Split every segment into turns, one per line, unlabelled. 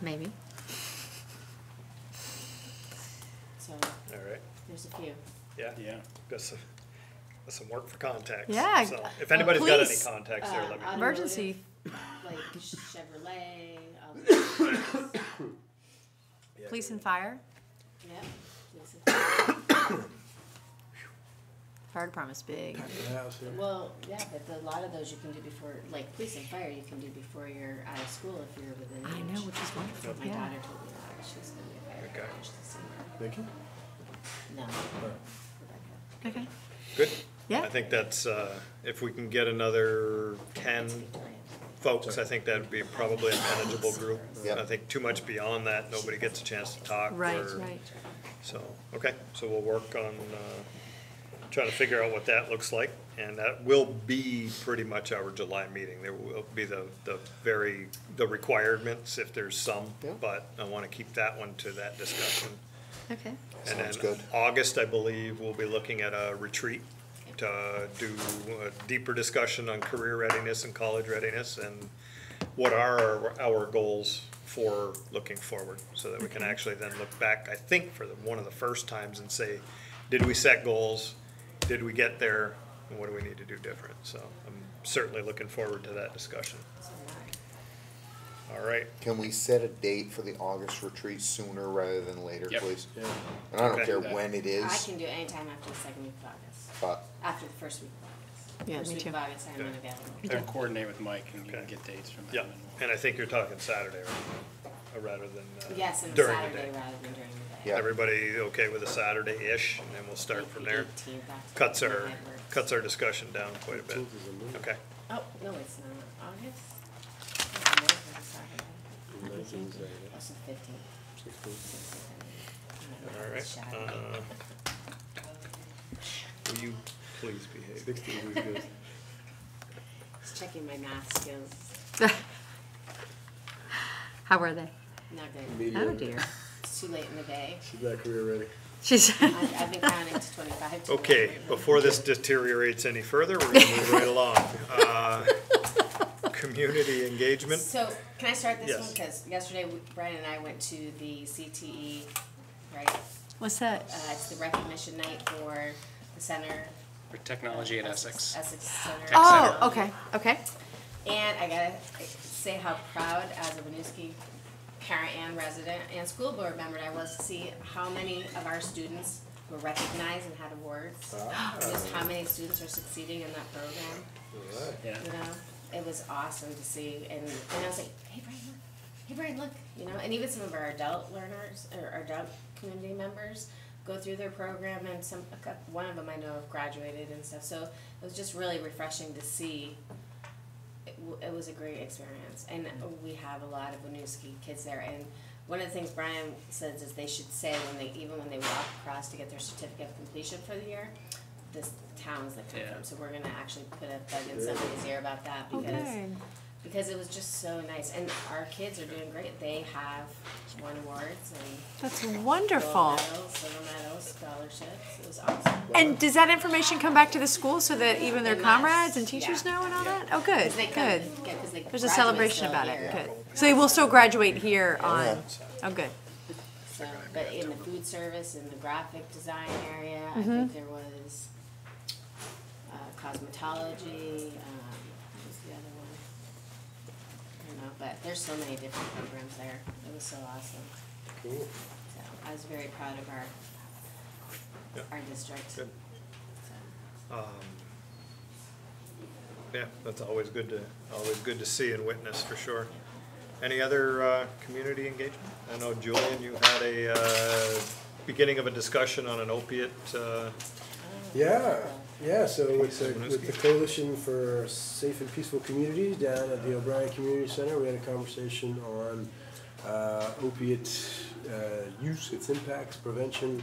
Maybe.
So
All right,
there's a few.
yeah,
Yeah.
got some, got some work for contacts.
Yeah,
So
uh,
if anybody's got any
please,
contacts there,
uh,
let me,
Automotive.
Emergency.
Like Chevrolet, all the-
yeah,
Police and fire.
yeah. there's
Fire department's big.
a- Well, yeah, but a lot of those you can do before, like police and fire, you can do before you're out of school if you're within.
I know,
age.
which is wonderful.
My
Yeah.
daughter told me that she's gonna be a
Okay.
firefighter this summer.
Vicky?
No, Rebecca.
Okay.
good. I
Yeah.
think that's, uh, if we can get another ten
It's a good plan.
folks, I think that'd be probably a manageable group.
Yeah.
I think too much beyond that, nobody gets a chance to talk.
Right,
or-
right.
So, okay, so we'll work on, uh, trying to figure out what that looks like, and that will be pretty much our July meeting. There will be the, the very, the requirements, if there's some,
Yeah.
but I wanna keep that one to that discussion.
Okay.
And
Sounds
then
good.
August, I believe, we'll be looking at a retreat to uh, do a deeper discussion on career readiness and college readiness and what are our, our goals for looking forward, so that we can actually then look back, I think, for the, one of the first times and say, did we set goals? Did we get there? And what do we need to do different? So I'm certainly looking forward to that discussion.
So am
All right,
Can we set a date for the August retreat sooner rather than later,
Yep.
please?
Yeah.
And I don't
Okay.
care when it
I. I
is,
can do any time after the second week of August,
but
after the first week of August.
Yeah,
First
me
week
too.
of August, I'm
Good.
unavailable.
I'll coordinate with Mike and you can
Okay.
get dates from
yeah,
him. and we'll-
and I think you're talking Saturday, right? Uh, Rather than uh, during the day.
Yes, on Saturday rather than during the day.
Yeah.
Everybody okay with a Saturday-ish, and then we'll start from there.
18th after
Cuts our,
midnight works.
cuts our discussion down quite a bit. Okay,
Oh, no, it's not, August? It's the 9th of Saturday. That's the 15th. I don't know,
all
it's
right.
shallow.
Uh, Will you please behave?
Just checking my math skills,
How were they?
not good,
Oh dear.
it's too late in the day,
She's not career ready.
She's.
I've, I've been counting to twenty-five. to
Okay,
25.
before this deteriorates any further, we're gonna move right along. Uh, Community engagement,
So, can I start this one,
Yes.
because yesterday we- Brian and I went to the CTE, right,
What's that?
uh, it's the recognition night for the center.
For technology at Essex.
Essex Center.
Oh, okay, okay.
And I gotta say how proud as a Winooski parent and resident and school board member I was to see how many of our students were recognized and had awards. And Just how many students are succeeding in that program,
Yeah.
you know? It was awesome to see and, and I was like, hey Brian, look, hey Brian, look, you know, and even some of our adult learners or our adult community members go through their program and some, a cou- one of them I know have graduated and stuff, so it was just really refreshing to see it, w- it was a great experience, and we have a lot of Winooski kids there. And one of the things Brian says is they should say when they, even when they walk across to get their certificate of completion for the year, this towns that come
Yeah.
from. So we're gonna actually put a bug in somebody's ear about that because
Good.
because it was just so nice. And our kids are doing great. They have won awards and
That's
gold
wonderful.
medals, silver medals, scholarships. It was awesome.
And does that information come back to the school so that even their
And that's-
comrades and teachers
yeah.
know and all that? Oh, good,
'Cause they come-
good.
yeah, 'cause they
There's a
graduate
celebration
still
about
here.
it, good. So they will still graduate here on, oh, good.
So, but in the food service, in the graphic design area,
Mm-hmm.
I think there was uh, cosmetology, um, what was the other one? I don't know, but there's so many different programs there. It was so awesome.
Cool.
So I was very proud of our,
Yeah.
our district.
Good.
So,
yeah, that's always good to, always good to see and witness, for sure. Any other, uh, community engagement? I know Julian, you had a, uh, beginning of a discussion on an opiate, uh,
Yeah, yeah, so with the,
Someone
with the
else?
Coalition for Safe and Peaceful Communities down at the O'Brien Community Center, we had a conversation on uh, opiate uh, use, its impacts, prevention,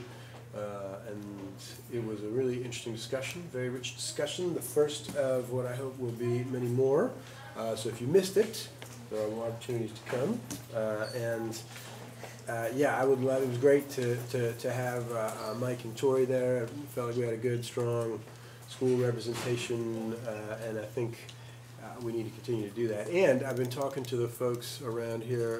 uh, and it was a really interesting discussion, very rich discussion, the first of what I hope will be many more. Uh, So if you missed it, there are more opportunities to come, Uh, and uh, yeah, I would love, it was great to, to, to have uh, uh, Mike and Tori there. Felt like we had a good, strong school representation, uh, and I think uh, we need to continue to do that. And I've been talking to the folks around here